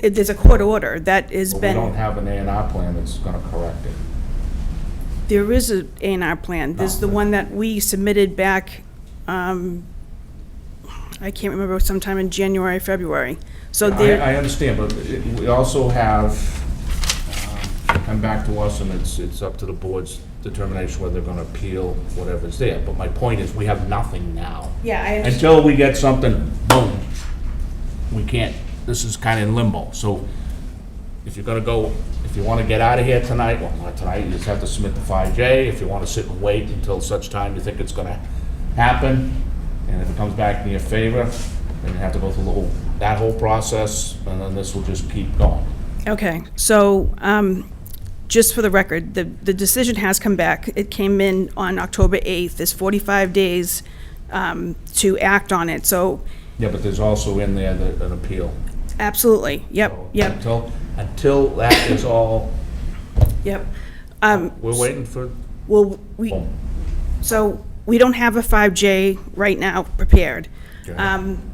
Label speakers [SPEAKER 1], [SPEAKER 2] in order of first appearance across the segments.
[SPEAKER 1] It- There's a court order that has
[SPEAKER 2] But we don't
[SPEAKER 1] been,
[SPEAKER 2] have an A and R plan that's going to correct it.
[SPEAKER 1] there is a A and R plan. There's the one that we submitted back, um, I can't remember, sometime in January, February. So there.
[SPEAKER 2] I, I understand, but it- we also have, um, come back to us, and it's, it's up to the board's determination whether they're gonna appeal whatever's there. But my point is, we have nothing now.
[SPEAKER 1] Yeah, I understand.
[SPEAKER 2] Until we get something, boom, we can't, this is kinda in limbo. So if you're gonna go, if you wanna get out of here tonight, well, not tonight, you just have to submit the 5J. If you wanna sit and wait until such time you think it's gonna happen, and if it comes back in your favor, then you have to go through the whole, that whole process, and then this will just keep going.
[SPEAKER 1] Okay, so, um, just for the record, the, the decision has come back. It came in on October 8th. There's 45 days um, to act on it, so
[SPEAKER 2] Yeah, but there's also in there the- an appeal.
[SPEAKER 1] absolutely, yep, yep,
[SPEAKER 2] Until, until that is all,
[SPEAKER 1] yep.
[SPEAKER 2] we're waiting for,
[SPEAKER 1] Well, we,
[SPEAKER 2] boom.
[SPEAKER 1] so, we don't have a 5J right now prepared.
[SPEAKER 2] Okay.
[SPEAKER 1] Um,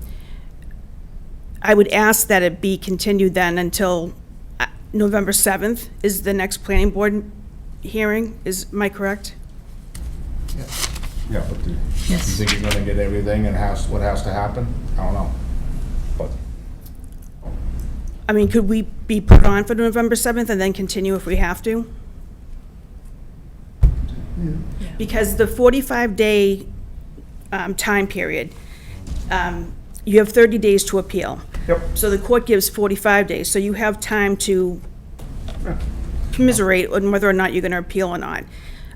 [SPEAKER 1] I would ask that it be continued then until uh, November 7th is the next planning board hearing, is, am I correct?
[SPEAKER 2] Yeah, but do you think you're gonna get everything and has, what has to happen? I don't know. But
[SPEAKER 1] I mean, could we be put on for November 7th and then continue if we have to? Because the 45-day time period, um, you have 30 days to appeal.
[SPEAKER 2] Yep.
[SPEAKER 1] So the court gives 45 days, so you have time to commiserate on whether or not you're going to appeal or not.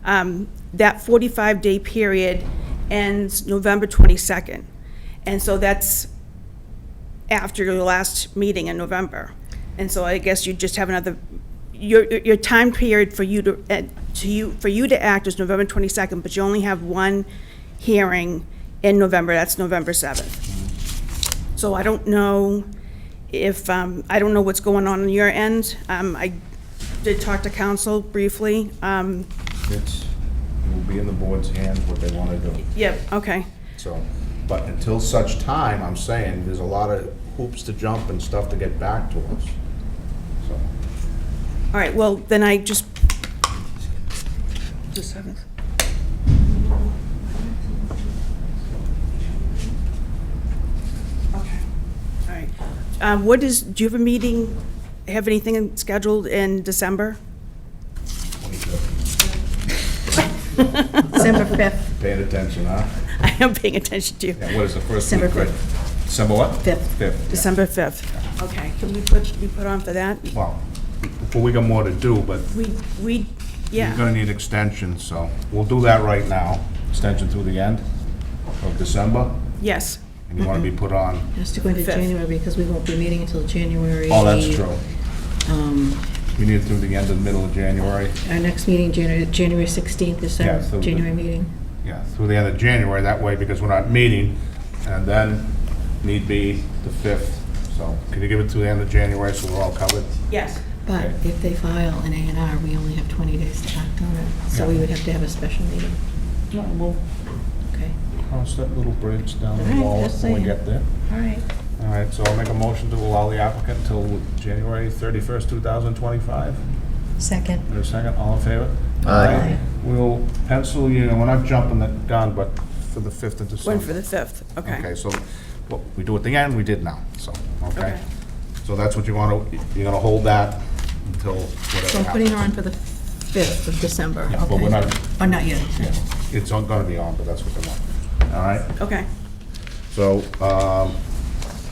[SPEAKER 1] Um, That 45-day period ends November 22nd, and so that's after your last meeting in November. And so I guess you just have another, your, your your time period for you to, eh, to you, for you to act is November 22nd, but you only have one hearing in November, that's November 7th. So I don't know if, um, I don't know what's going on on your end. Um, I did talk to council briefly. Um,
[SPEAKER 2] it's, it will be in the board's hands what they wanna do.
[SPEAKER 1] yep, okay.
[SPEAKER 2] So, but until such time, I'm saying, there's a lot of hoops to jump and stuff to get back to us. So,
[SPEAKER 1] All right, well, then I just. The 7th. Okay, all right. Um, What is, do you have a meeting, have anything scheduled in December?
[SPEAKER 3] December 5th,
[SPEAKER 2] paying attention, huh?
[SPEAKER 1] I am paying attention to you.
[SPEAKER 2] Yeah, what is the first
[SPEAKER 3] December
[SPEAKER 2] week, right? December what?
[SPEAKER 3] Fifth.
[SPEAKER 2] Fifth.
[SPEAKER 1] December 5th. Okay, can we put, we put on for that?
[SPEAKER 2] Well, well, we got more to do, but
[SPEAKER 1] We, we,
[SPEAKER 2] we're
[SPEAKER 1] yeah,
[SPEAKER 2] gonna need extension, so we'll do that right now. Extension through the end of December,
[SPEAKER 1] yes.
[SPEAKER 2] and you wanna be put on.
[SPEAKER 3] has to go into
[SPEAKER 1] Fifth.
[SPEAKER 3] January because we won't be meeting until January.
[SPEAKER 2] Oh, that's true.
[SPEAKER 3] Um,
[SPEAKER 2] We need it through the end of the middle of January.
[SPEAKER 3] Our next meeting, January, January 16th is
[SPEAKER 2] Yeah,
[SPEAKER 3] our
[SPEAKER 2] so the-
[SPEAKER 3] January meeting.
[SPEAKER 2] Yeah, through the end of January, that way, because we're not meeting, and then need be the 5th. So can you give it to the end of January so we're all covered?
[SPEAKER 1] Yes.
[SPEAKER 3] But
[SPEAKER 2] Okay.
[SPEAKER 3] if they file an A and R, we only have 20 days to act on it. So we
[SPEAKER 2] Yeah.
[SPEAKER 3] would have to have a special meeting,
[SPEAKER 2] No, we'll
[SPEAKER 3] okay?
[SPEAKER 2] cross that little bridge down
[SPEAKER 3] All right, just saying.
[SPEAKER 2] there.
[SPEAKER 3] All right.
[SPEAKER 2] All right, so I'll make a motion to allow the applicant until January 31st, 2025.
[SPEAKER 3] Second.
[SPEAKER 2] Is there a second? All in favor?
[SPEAKER 4] Aye.
[SPEAKER 2] We'll pencil you, and we're not jumping the gun, but for the 5th of December.
[SPEAKER 1] One for the 5th,
[SPEAKER 2] Okay,
[SPEAKER 1] okay.
[SPEAKER 2] so what we do at the end, we did now, so, okay?
[SPEAKER 1] Okay.
[SPEAKER 2] So that's what you want to, you're going to hold that until
[SPEAKER 3] So
[SPEAKER 2] whatever
[SPEAKER 3] I'm putting
[SPEAKER 2] happens.
[SPEAKER 3] her on for the 5th of December.
[SPEAKER 2] Yeah, but
[SPEAKER 3] okay.
[SPEAKER 2] we're not-
[SPEAKER 3] Oh, not yet.
[SPEAKER 2] Yeah, It's going to be on, but that's what they want. All right,
[SPEAKER 1] Okay,
[SPEAKER 2] so um,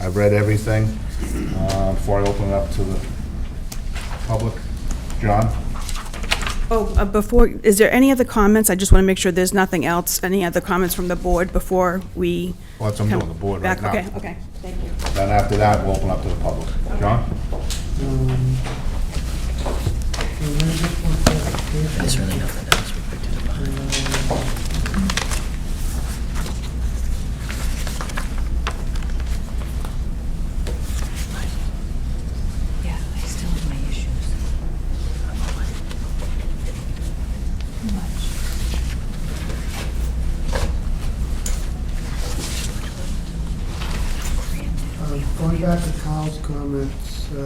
[SPEAKER 2] I've read everything. Uh, Before I open it up to the public, John?
[SPEAKER 1] oh, uh, before, is there any other comments? I just want to make sure there's nothing else, any other comments from the board before we?
[SPEAKER 2] Well, that's what I'm
[SPEAKER 1] come
[SPEAKER 2] doing, the board right
[SPEAKER 1] back?
[SPEAKER 2] now.
[SPEAKER 1] Okay, okay, thank you.
[SPEAKER 2] Then after that, we'll open up to the public. John?
[SPEAKER 4] There's really nothing else we could do about it.
[SPEAKER 3] Yeah, I still have my issues. Too much.
[SPEAKER 5] Uh, Going back to Kyle's comments,